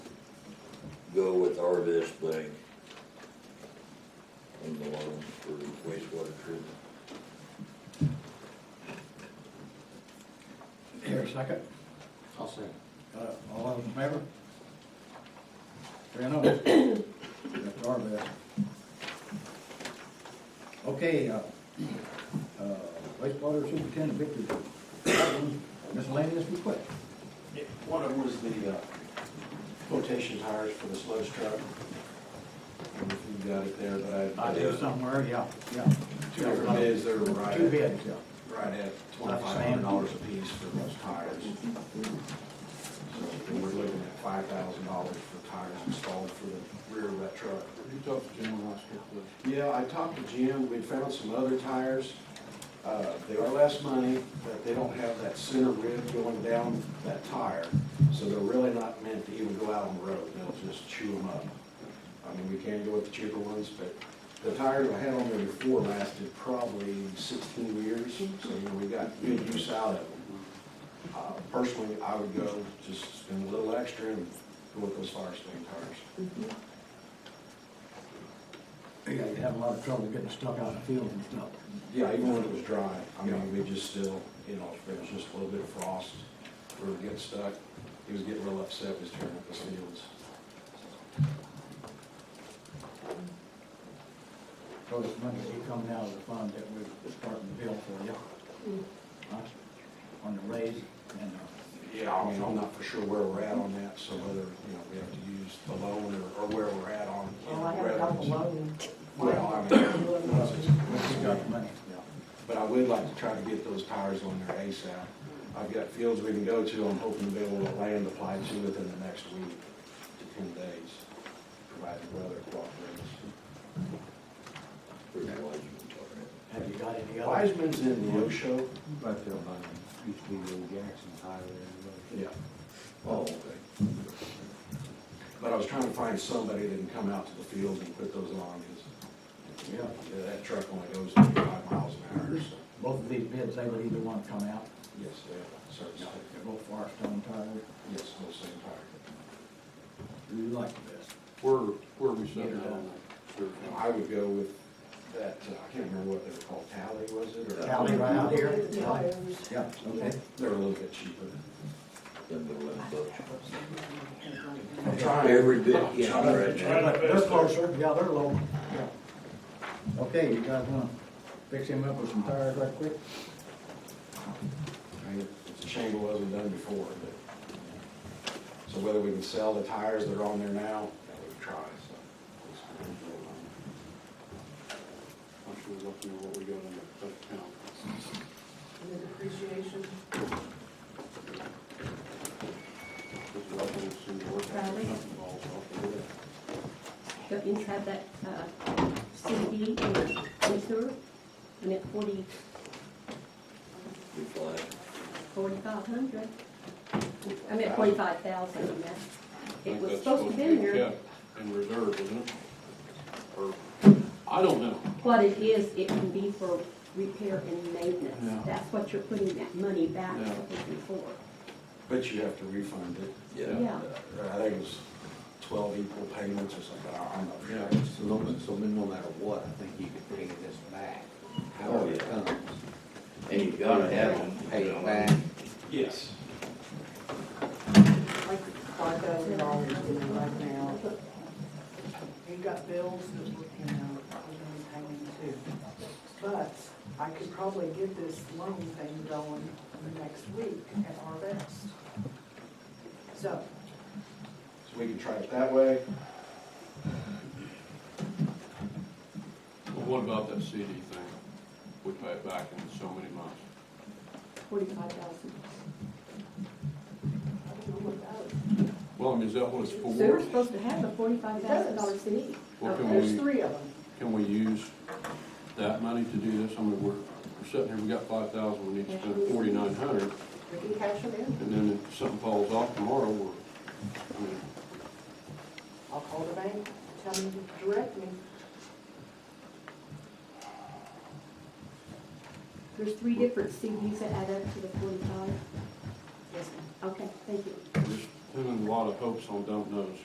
go with Arvest Bank on the loan for wastewater treatment. Here, second. I'll say. Got it. All those in favor? Three and oh. That's our best. Okay, uh, uh, wastewater superintendent Victor, miscellaneous request. Yeah, One of them was the uh, quotation tires for the slow truck. I don't know If you got it there, but I. I do somewhere, yeah, yeah. Two different bids, they were right. Two at- bids, yeah. Right at twenty-five hundred dollars a piece for those tires. So we're looking at five thousand dollars for tires installed for the rear of that truck. You talked to Jim last week, please. Yeah, I talked to Jim, we found some other tires. Uh, They are less money, but they don't have that center rib going down that tire. So they're really not meant to even go out on the road, they'll just chew them up. I mean, we can go with the cheaper ones, but the tires I had on there before lasted probably sixteen years, so, you know, we got good use out of them. Uh, Personally, I would go, just spend a little extra and go with those Firestone tires. Yeah, you have a lot of trouble getting stuck out in the field and stuff. Yeah, even when it was dry, I mean, we just still, you know, if there was just a little bit of frost, we were getting stuck. He was getting real upset, was tearing up his fields. So this money you coming out of the fund that we're starting to bill for you. Huh? On the raise and, uh, Yeah, I mean, I'm not for sure where we're at on that, so whether, you know, we have to use the loan or, or where we're at on. you know, Well, I have a couple whether of them. it's- Well, I mean, no, it's- we got the money. But I would like to try to get those tires on there ASAP. I've got fields we can go to, I'm hoping to be able to land apply to within the next week to ten days, provided the weather cooperates. Pretty much, you Have you got any other? Wiseman's in the Osho. Right there by, used to be the old Jackson Tire there. Yeah. can talk about. Oh, okay. But I was trying to find somebody that can come out to the field and put those on, because Yeah, that truck only goes thirty-five miles an hour, so. both of these bids, they would either one come out, Yes, they have service. they're both forest owned tires. Yes, those same tire. You like the best. Where, where are we sitting at on Now, that? I would go with that, uh, I can't remember what they were called, Tally, was it? or- Tally right out here? Tires. Yeah, okay. They were a little bit cheaper. Then the eleven bucks. I'm trying. Every bit counts right now. They're closer, yeah, they're low. Okay, you guys wanna fix him up with some tires right quick? I mean, It's a shame it wasn't done before, but. So whether we can sell the tires that are on there now, that we try, so. I'm sure looking at what we got in the account. And then appreciation. This is all going to seem to work out. Probably. Nothing falls off of it. go inside that uh, CD in sewer, and at forty, You fly. forty-five hundred, I mean, forty-five thousand, and that, it was supposed to be in there. kept In reserve, isn't it? Or, I don't know. What it is, it can be for repair and Yeah. maintenance, that's what you're putting that money back Yeah. for. But you have to refund it. Yeah. Yeah. Uh, I think it was twelve equal payments or something, I- I'm not Yeah. sure. So no, so no matter what, I think you could bring this back, however it Oh, comes. And you gotta have them. Pay it back. Yes. Like five thousand dollars in it right now. You got bills that, you know, we're gonna pay them too. But I could probably get this loan thing going next week at our best. So, So we can try it that way. Well, What about that CD thing? We pay it back in so many months. Forty-five thousand. I don't know what that is. Well, I mean, is that what it's Sewer's for? supposed to have a forty-five thousand dollar CD. Well, can There's we- three of them. Can we use that money to do this? I mean, we're, we're sitting here, we got five thousand, we need to spend forty-nine hundred, We can cash them in. and then if something falls off tomorrow, we're, I mean, I'll call the bank, tell them to direct me. There's three different CDs that add up to the forty-five, Yes, ma'am. okay, thank you. we're just pinning a lot of hopes on don't knows.